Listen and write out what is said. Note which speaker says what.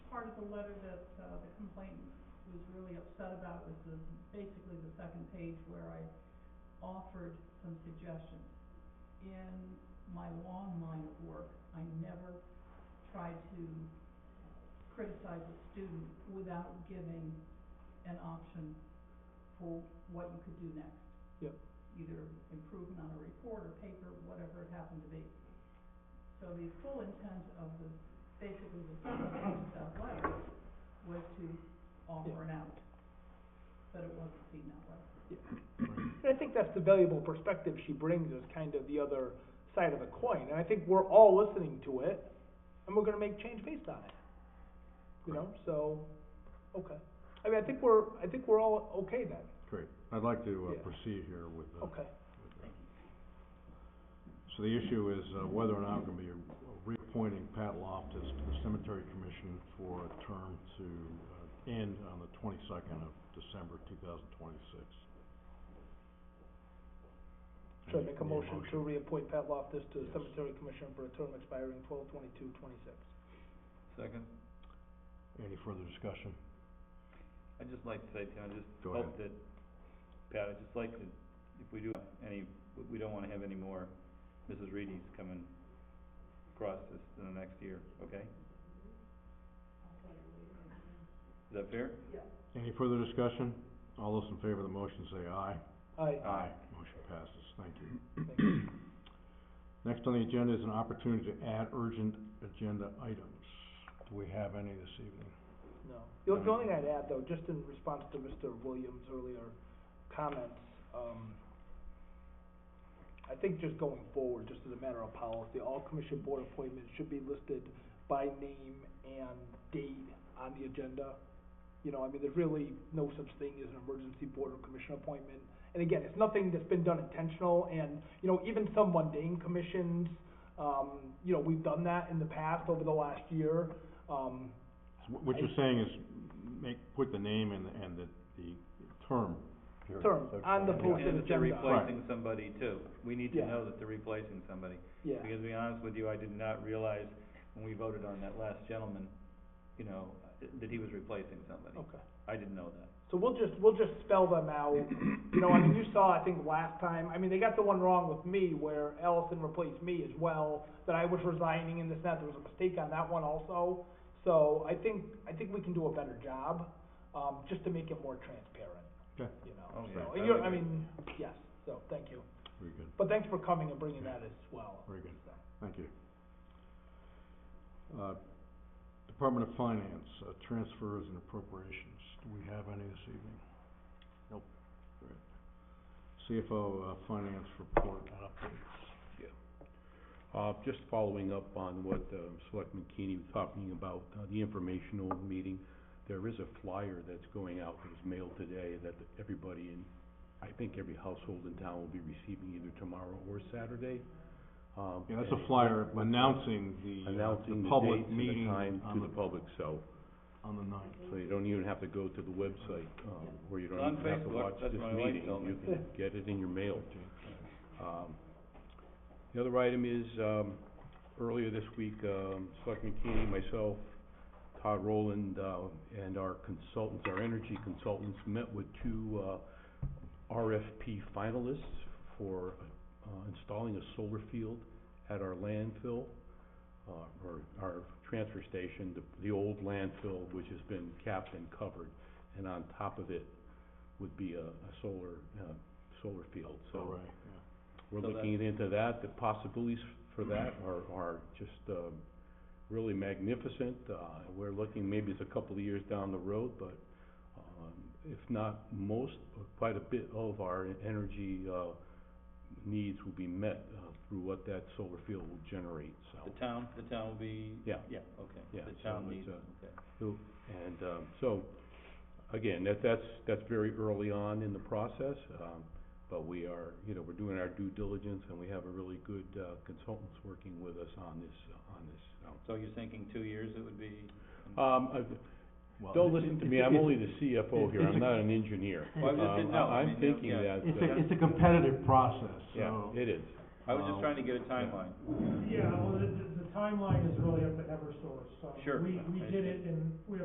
Speaker 1: the letter that, uh, the complainant was really upset about was the, basically the second page where I offered some suggestions. In my long line of work, I never try to criticize a student without giving an option for what you could do next.
Speaker 2: Yep.
Speaker 1: Either improvement on a report or paper, whatever it happened to be. So the full intent of the, basically the second page of that letter was to offer an out, but it wasn't seen that way.
Speaker 2: And I think that's the valuable perspective she brings is kind of the other side of the coin. And I think we're all listening to it and we're gonna make change based on it. You know, so, okay. I mean, I think we're, I think we're all okay then,
Speaker 3: Great. I'd like to uh,
Speaker 2: Yeah.
Speaker 3: proceed here with the...
Speaker 2: okay.
Speaker 3: with the- So the issue is uh, whether or not I'm going to be reappointing Pat Loftus to the Cemetery Commission for a term to uh, end on the twenty-second of December, two thousand twenty-six.
Speaker 2: Should I make a motion to reappoint Pat Loftus to the cemetery commission for a term expiring twelve twenty-two twenty-six?
Speaker 4: Second.
Speaker 3: Any further discussion?
Speaker 4: I'd just like to say, Tim, I just
Speaker 3: Go
Speaker 4: hope that, Pat, I'd just like to, if we do any, we don't wanna have any more Mrs. Reedies coming across this in the next year, okay? Is that fair?
Speaker 3: Any further discussion? All those in favor of the motion say aye.
Speaker 2: Aye.
Speaker 3: Motion passes. Thank you.
Speaker 2: Thank you.
Speaker 3: Next on the agenda is an opportunity to add urgent agenda items. Do we have any this evening?
Speaker 2: No. The only- the only thing I'd add, though, just in response to Mr. Williams' earlier comments, um, I think just going forward, just as a matter of policy, all commission board appointments should be listed by name and date on the agenda. You know, I mean, there's really no such thing as an emergency board or commission appointment. And again, it's nothing that's been done intentional, and, you know, even some mundane commissions, um, you know, we've done that in the past over the last year. Um,
Speaker 3: So wh- What you're saying is make, put the name and, the- and the, the term. period.
Speaker 2: Term,
Speaker 3: So-
Speaker 2: on the
Speaker 3: yeah.
Speaker 2: posted
Speaker 4: And if they're
Speaker 2: agenda.
Speaker 4: replacing somebody too, we need to
Speaker 2: Yeah.
Speaker 4: know that they're replacing somebody.
Speaker 2: Yeah,
Speaker 4: Because to be honest with you, I did not realize when we voted on that last gentleman, you know, that he was replacing somebody.
Speaker 2: okay.
Speaker 4: I didn't know that.
Speaker 2: So we'll just, we'll just spell them out. You know, I mean, you saw, I think, last time, I mean, they got the one wrong with me where Ellison replaced me as well, that I was resigning and this and that. There was a mistake on that one also. So I think, I think we can do a better job, um, just to make it more transparent.
Speaker 3: Okay.
Speaker 2: You know,
Speaker 4: Okay.
Speaker 2: so,
Speaker 4: I
Speaker 2: and you're,
Speaker 4: would
Speaker 2: I
Speaker 4: agree.
Speaker 2: mean, yes, so, thank you.
Speaker 3: Very good,
Speaker 2: But thanks for coming and bringing that as well.
Speaker 3: very good.
Speaker 2: So.
Speaker 3: Thank you. Uh, Department of Finance, uh, transfers and appropriations. Do we have any this evening? Nope. Great. CFO, uh, finance report and updates.
Speaker 5: Uh, just following up on what, uh, Selectman Keeney was talking about, uh, the informational meeting, there is a flyer that's going out, that was mailed today, that everybody in, I think every household in town will be receiving either tomorrow or Saturday. Um,
Speaker 3: Yeah, that's
Speaker 5: and
Speaker 3: a flyer announcing the, uh,
Speaker 5: Announcing the
Speaker 3: public
Speaker 5: dates and the
Speaker 3: meeting
Speaker 5: time
Speaker 3: on
Speaker 5: to the
Speaker 3: the,
Speaker 5: public, so,
Speaker 3: on the ninth.
Speaker 5: so you don't even have to go to the website, um, where you
Speaker 4: It's on
Speaker 5: don't even have to
Speaker 4: Facebook,
Speaker 5: watch
Speaker 4: that's
Speaker 5: this
Speaker 4: what my wife
Speaker 5: meeting.
Speaker 4: told me.
Speaker 5: You can get it in your mail. Um, the other item is, um, earlier this week, um, Selectman Keeney, myself, Todd Rowland, uh, and our consultants, our energy consultants, met with two, uh, RFP finalists for, uh, installing a solar field at our landfill, uh, or our transfer station, the, the old landfill, which has been capped and covered, and on top of it would be a, a solar, uh, solar field, so.
Speaker 3: All right, yeah.
Speaker 5: We're
Speaker 4: So
Speaker 5: looking into that, the possibilities for that are, are just, um, really magnificent. Uh, we're looking, maybe it's a couple of years down the road, but, um, if not most, quite a bit of our energy, uh, needs will be met, uh, through what that solar field will generate, so.
Speaker 4: The town, the town will be?
Speaker 5: Yeah.
Speaker 4: Yeah, okay.
Speaker 5: Yeah,
Speaker 4: The
Speaker 5: so
Speaker 4: town
Speaker 5: it's,
Speaker 4: needs,
Speaker 5: uh,
Speaker 4: okay.
Speaker 5: And, um, so, again, that, that's, that's very early on in the process, um, but we are, you know, we're doing our due diligence and we have a really good, uh, consultants working with us on this, uh, on this, so.
Speaker 4: So you're thinking two years it would be?
Speaker 5: Um, uh,
Speaker 3: Well,
Speaker 5: don't listen to me, I'm only the CFO here,
Speaker 3: it's a-
Speaker 5: I'm not an engineer.
Speaker 4: Well, I just didn't
Speaker 5: Um,
Speaker 4: know. I
Speaker 5: I'm
Speaker 4: mean, you know,
Speaker 5: thinking
Speaker 4: yeah.
Speaker 5: that,
Speaker 3: It's
Speaker 5: uh,
Speaker 3: a, it's a competitive process,
Speaker 5: yeah,
Speaker 3: so.
Speaker 5: it is.
Speaker 4: I was just
Speaker 3: uh,
Speaker 4: trying to get a timeline.
Speaker 6: Yeah, well, the, the the timeline is really up to Eversource, so.
Speaker 4: Sure.
Speaker 6: We, we did it and we